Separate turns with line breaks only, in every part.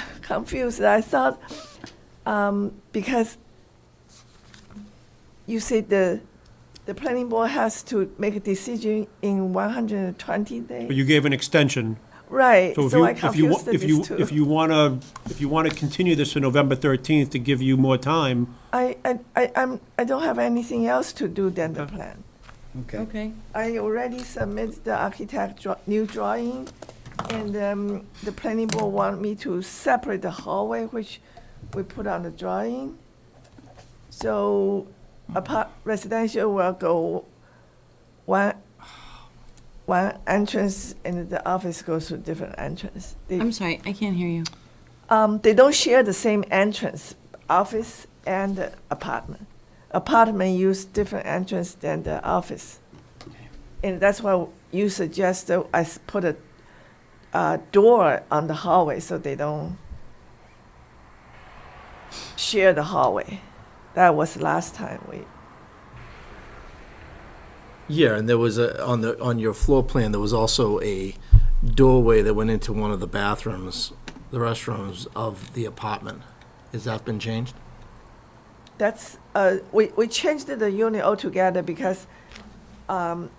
confused. I thought, um, because you said the, the planning board has to make a decision in one hundred and twenty
But
days.
you gave an extension.
Right,
So if
so
you,
I
if you,
confused
if you,
these
if
two.
you want to, if you want to continue this to November 13th to give you more time,
I, I, I, I'm, I don't have anything else to do than the plan.
Okay.
Okay,
I already submitted the architect draw, new drawing, and, um, the planning board want me to separate the hallway, which we put on the drawing. So, apart, residential will go one, one entrance, and the office goes to different entrance. They-
I'm sorry, I can't hear you.
um, they don't share the same entrance, office and apartment. Apartment use different entrance than the office. And that's why you suggest that I s- put a, uh door on the hallway so they don't share the hallway. That was last time we,
Yeah, and there was a, on the, on your floor plan, there was also a doorway that went into one of the bathrooms, the restrooms of the apartment. Has that been changed?
that's, uh, we, we changed the unit altogether because, um,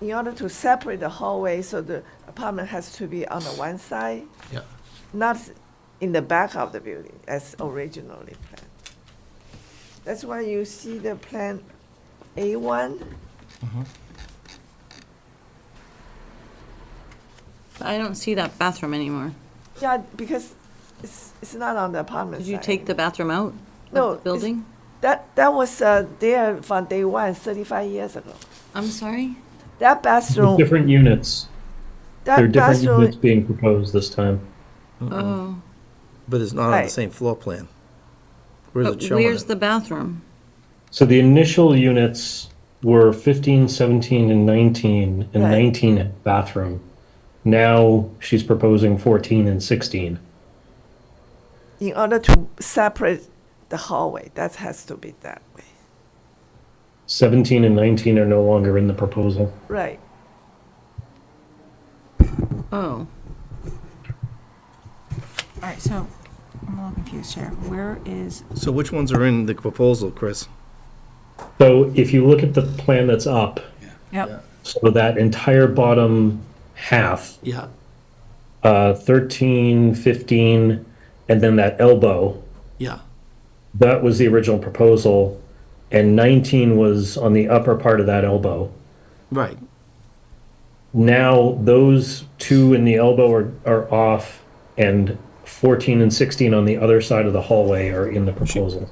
in order to separate the hallway, so the apartment has to be on the one side
Yeah.
not in the back of the building as originally planned. That's why you see the plan A1.
But I don't see that bathroom anymore.
Yeah, because it's, it's not on the apartment
Did you
side.
take the bathroom out
No,
of the
it's-
building?
That, that was uh, there from day one, 35 years ago.
I'm sorry?
That
With
bathroom,
different units. There are
that
different
bathroom,
units being proposed this time.
Uh-uh.
Oh,
But it's not on the
Right.
same floor plan. Where's it
but
showing
where's
it?
the bathroom?
So the initial units were 15, 17, and 19, and
Right.
19 had bathroom. Now she's proposing 14 and 16.
in order to separate the hallway, that has to be that way.
17 and 19 are no longer in the proposal.
Right.
Oh,
All right, so I'm a little confused here. Where is,
So which ones are in the proposal, Chris?
So if you look at the plan that's up,
Yeah.
yep,
so that entire bottom half,
Yeah.
uh, 13, 15, and then that elbow,
Yeah.
that was the original proposal, and 19 was on the upper part of that elbow.
Right.
now those two in the elbow are, are off and 14 and 16 on the other side of the hallway are in the proposal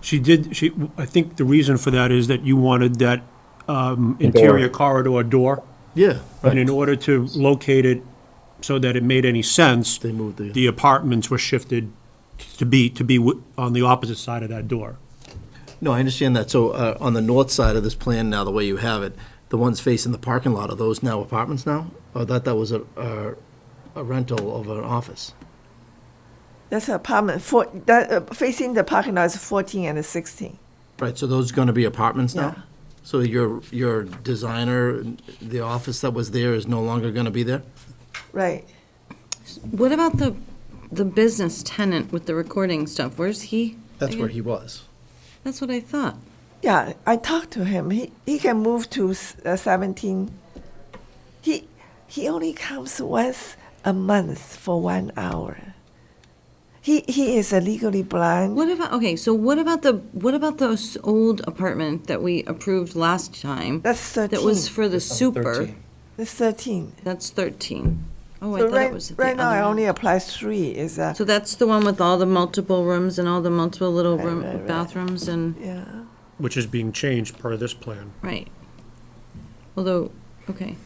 she did, she, I think the reason for that is that you wanted that um, interior corridor door.
Yeah.
And in order to locate it so that it made any sense,
They moved the-
the apartments were shifted to be, to be wi- on the opposite side of that door.
No, I understand that. So uh, on the north side of this plan now, the way you have it, the ones facing the parking lot, are those now apartments now? Or that, that was a, a- a rental of an office?
That's apartment, four, that, uh, facing the parking lot is 14 and 16.
Right, so those are gonna be apartments
Yeah.
now? So your, your designer, the office that was there is no longer gonna be there?
Right.
what about the, the business tenant with the recording stuff? Where's he?
That's where he was.
That's what I thought.
Yeah, I talked to him. He he can move to s- uh, seventeen. He he only comes once a month for one hour. He he is uh, legally blind.
What about, okay, so what about the, what about those old apartment that we approved last time?
That's
That
thirteen.
was for the super?
That's thirteen.
That's 13. Oh, I
so
thought
right,
it was the
right now
other
I
one.
only apply three. Is that
So that's the one with all the multiple rooms and all the multiple little
Right,
room,
right, right.
bathrooms and,
yeah?
which is being changed per this plan.
right. Although, okay.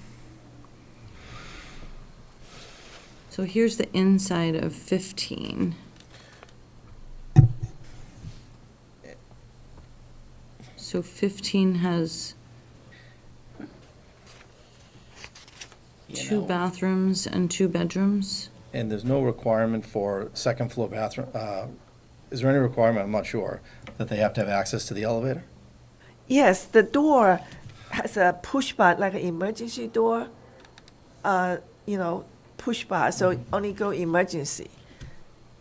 So here's the inside of 15. So 15 has two bathrooms and two bedrooms?
And there's no requirement for second floor bathroom, uh, is there any requirement, I'm not sure, that they have to have access to the elevator?
Yes, the door has a push button, like an
Mm-hmm.
emergency door. Uh, you know, push bar. So only go emergency.